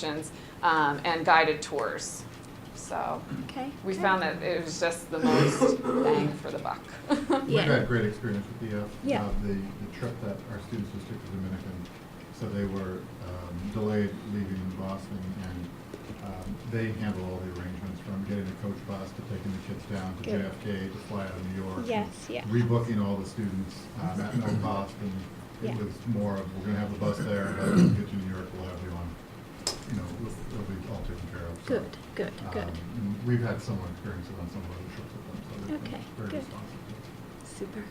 sessions, um, and guided tours. So Okay. we good. found that it was just the most bang for the buck. Yeah. We've had great experience with the, uh, Yeah. uh, the, the trip that our students just took to Dominican. So they were, um, delayed leaving Boston and, um, they handle all the arrangements from getting a coach bus to taking the kids down to Good. JFK to fly out of New York. and Yes, yeah. Rebooking all the students, um, at no cost and Yeah. it was more of, we're gonna have the bus there, but when we get to New York, we'll have you on, you know, it'll be all taken care of. So, Good, good, um, good. and We've had similar experiences on some of the trips with them, so Okay, they're good. very responsive. Super.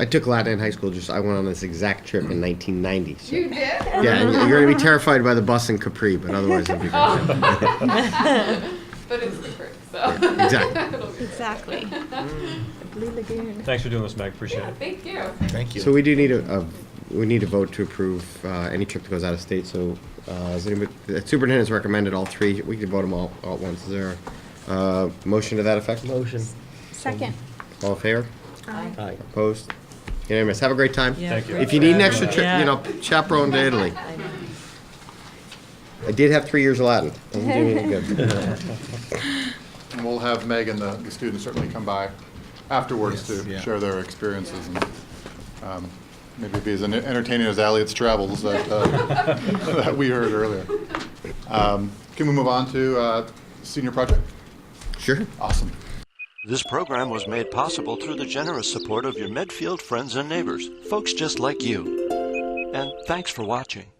I took Latin in high school. Just I went on this exact trip in 1990. So. You did? Yeah, and you're gonna be terrified by the bus in Capri, but otherwise it'll be great. Oh, But it's different, so. Yeah, exactly. It'll be great. Exactly. The Blue Lagoon. Thanks for doing this, Meg. Appreciate Yeah, it. thank you. Thank you. So we do need a, a we need a vote to approve uh, any trip that goes out of state. So uh, is anybody, the superintendent's recommended all three. We can vote them all, all at once. Is there a uh, motion to that effect? Motion. Second. All in favor? Aye. Hi. Opposed? Unanimous. Have a great time. Yeah, Thank you. If you need an extra Yeah. trip, you know, chaperone to Italy. I did have three years of Latin. Doesn't do me any good. And we'll have Meg and the, the students certainly come by afterwards Yes, to yeah. share their experiences and um, maybe be as en- entertaining as Elliot's travels that, uh, that we heard earlier. Um, Can we move on to uh, senior project? Sure. Awesome. This program was made possible through the generous support of your Medfield friends and neighbors, folks just like you. And thanks for watching.